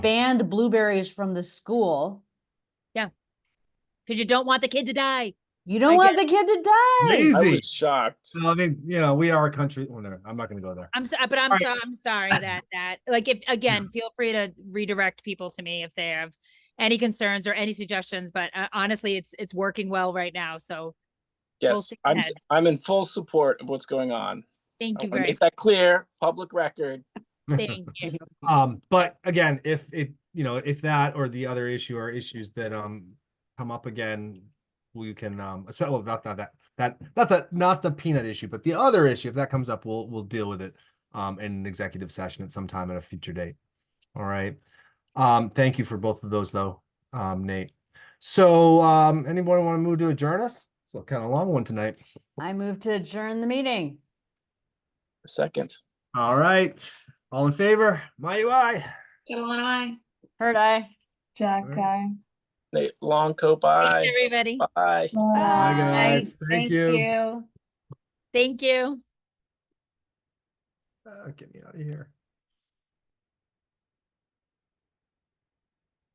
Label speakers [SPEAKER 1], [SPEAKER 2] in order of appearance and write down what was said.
[SPEAKER 1] banned blueberries from the school.
[SPEAKER 2] because you don't want the kid to die.
[SPEAKER 1] You don't
[SPEAKER 2] I
[SPEAKER 1] want the kid to die.
[SPEAKER 3] Amazing.
[SPEAKER 4] I
[SPEAKER 3] Easy.
[SPEAKER 4] was shocked.
[SPEAKER 3] So I mean, you know, we are a country. oh, no, I'm not going to go there.
[SPEAKER 2] I'm so, but I'm
[SPEAKER 3] Right.
[SPEAKER 2] so, I'm sorry that that like if again, feel free to redirect people to me if they have any concerns or any suggestions. But uh, honestly, it's it's working well right now. So
[SPEAKER 4] Yes,
[SPEAKER 2] steam
[SPEAKER 4] I'm,
[SPEAKER 2] ahead.
[SPEAKER 4] I'm in full support of what's going on.
[SPEAKER 2] thank
[SPEAKER 4] I
[SPEAKER 2] you
[SPEAKER 4] want to
[SPEAKER 2] very
[SPEAKER 4] make that clear, public record.
[SPEAKER 2] much. Thank you.
[SPEAKER 3] Um, but again, if it, you know, if that or the other issue are issues that um come up again, we can um, especially well, not not that that not that not the peanut issue, but the other issue. If that comes up, we'll we'll deal with it um in an executive session at some time at a future date. All right. Um, thank you for both of those though, um, Nate. So um, anyone want to move to adjourn us? It's a kind of long one tonight.
[SPEAKER 1] I move to adjourn the meeting.
[SPEAKER 4] Second.
[SPEAKER 3] All right. All in favor? My UI.
[SPEAKER 5] Catalana, I.
[SPEAKER 1] Heard I.
[SPEAKER 6] Jack
[SPEAKER 3] Alright.
[SPEAKER 6] guy.
[SPEAKER 4] Nate Longco,
[SPEAKER 2] Thanks,
[SPEAKER 4] bye.
[SPEAKER 2] everybody.
[SPEAKER 4] Bye.
[SPEAKER 3] Hi
[SPEAKER 1] Bye.
[SPEAKER 3] guys. Thank you.
[SPEAKER 6] you.
[SPEAKER 2] Thank you.
[SPEAKER 3] Uh, get me out of here.